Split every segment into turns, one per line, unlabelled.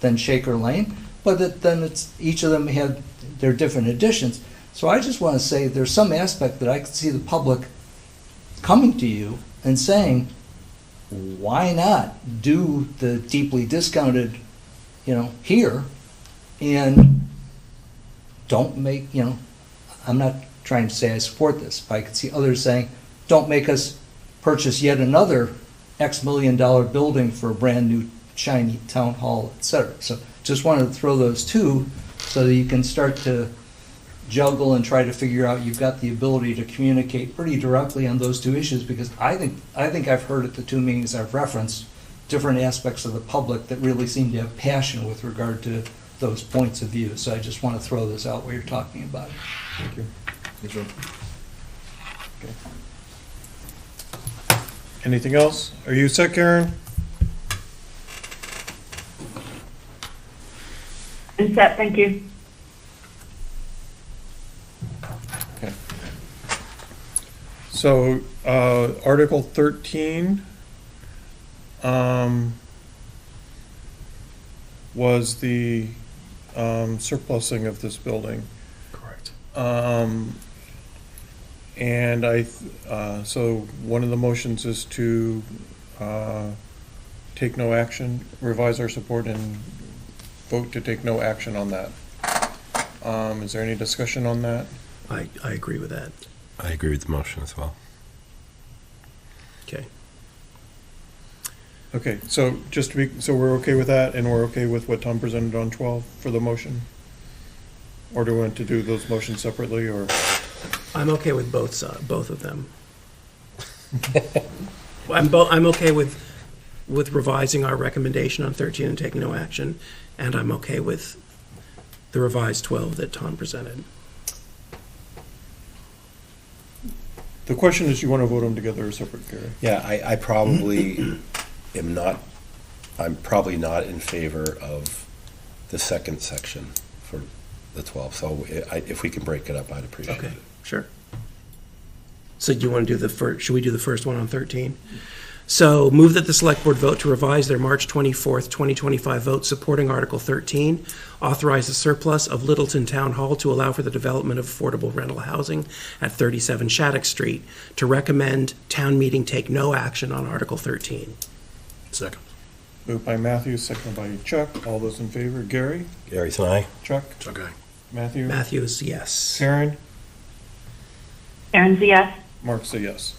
than Shaker Lane, but it, then it's, each of them had their different additions. So I just want to say, there's some aspect that I could see the public coming to you and saying, why not do the deeply discounted, you know, here, and don't make, you know, I'm not trying to say I support this, but I could see others saying, don't make us purchase yet another X million dollar building for a brand new shiny town hall, et cetera. So just wanted to throw those two so that you can start to juggle and try to figure out, you've got the ability to communicate pretty directly on those two issues, because I think, I think I've heard at the two meetings I've referenced, different aspects of the public that really seem to have passion with regard to those points of view. So I just want to throw this out while you're talking about it.
Thank you. Thanks, Rob. Anything else? Are you set, Karen?
I'm set, thank you.
So, uh, Article thirteen, um, was the, um, surplusing of this building.
Correct.
Um, and I, th- uh, so one of the motions is to, uh, take no action, revise our support and vote to take no action on that. Um, is there any discussion on that?
I, I agree with that.
I agree with the motion as well.
Okay.
Okay, so just to be, so we're okay with that and we're okay with what Tom presented on twelve for the motion? Or do we want to do those motions separately or?
I'm okay with both, si- both of them. I'm, bo- I'm okay with, with revising our recommendation on 13 and taking no action, and I'm okay with the revised 12 that Tom presented.
The question is, you want to vote them together or separate, Gary?
Yeah, I, I probably am not, I'm probably not in favor of the second section for the 12. So I, if we can break it up, I'd appreciate
Okay,
it.
sure. So do you want to do the first, should we do the first one on 13? So move that the select board vote to revise their March 24th, 2025 vote supporting Article 13, authorize the surplus of Littleton Town Hall to allow for the development of affordable rental housing at 37 Shattuck Street, to recommend town meeting take no action on Article 13.
Second.
Moved by Matthew, seconded by Chuck. All those in favor, Gary,
Gary's and I.
Chuck,
It's okay.
Matthew,
Matthew is yes.
Karen,
Karen's a yes.
Mark's a yes.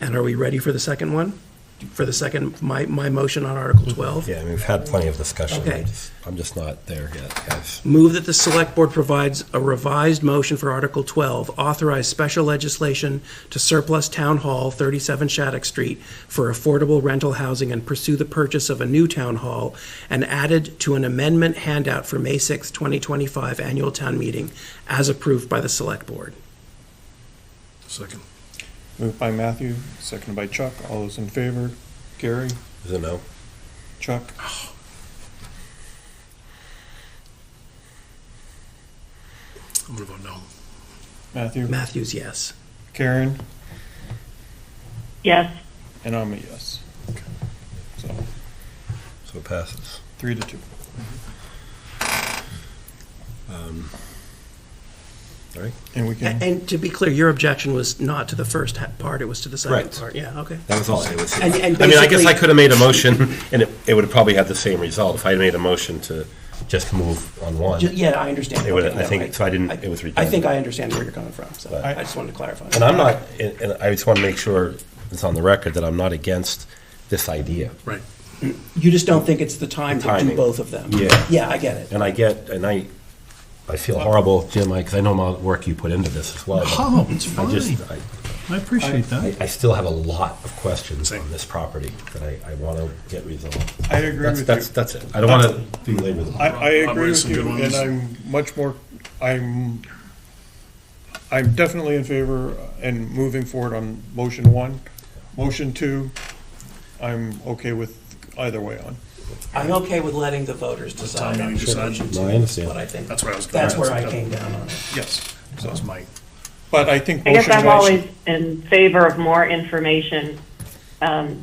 And are we ready for the second one? For the second, my, my motion on Article 12?
Yeah, I mean, we've had plenty of discussion.
Okay.
I'm just- I'm just not there yet, guys.
Move that the Select Board provides a revised motion for Article 12, authorize special legislation to surplus Town Hall 37 Shattuck Street for affordable rental housing and pursue the purchase of a new Town Hall, and added to an amendment handout for May 6, 2025 Annual Town Meeting, as approved by the Select Board.
Second.
Moved by Matthew, seconded by Chuck. All those in favor, Gary,
Is it no?
Chuck,
I'm gonna vote no.
Matthew,
Matthews, yes.
Karen,
Yes,
and I'm a yes. So,
So it passes.
three to two.
Um, All right.
And we
A-
can,
And to be clear, your objection was not to the first ha- part, it was to the second
Right.
part. Yeah, okay.
That was all I was.
And- and
I mean, I guess I
basically-
could have made a motion and it, it would have probably had the same result if I had made a motion to just move on one.
Ju- Yeah, I understand.
It would-
Okay,
I
no,
think- so I didn't- it was
I think
redundant.
I understand where you're coming from, so
Right.
I just wanted to clarify.
And I'm not, and and I just want to make sure it's on the record that I'm not against this idea.
Right.
You just don't think it's the time to do
Timing.
both of them?
Yeah.
Yeah, I get it.
And I get, and I, I feel horrible, Jim, because I know how much work you put into this as well. but
Oh, it's
I just,
fine.
I,
I appreciate that.
I- I still have a lot of questions
Same.
on this property that I, I want to get resolved.
I agree
That's,
with
that's,
you.
that's it. I don't want to belabor the
I,
point.
I
Rob
agree
raised
with
some
you, and
good ones.
I'm much more, I'm, I'm definitely in favor and moving forward on motion one. Motion two, I'm okay with either way on.
I'm okay with letting the voters decide on
timing
which
decision.
one
No, I understand.
but I think,
That's where I was.
that's where I came down on it.
Yes,
That was my,
but I think
I guess
motion
I'm
one.
always in favor of more information, um,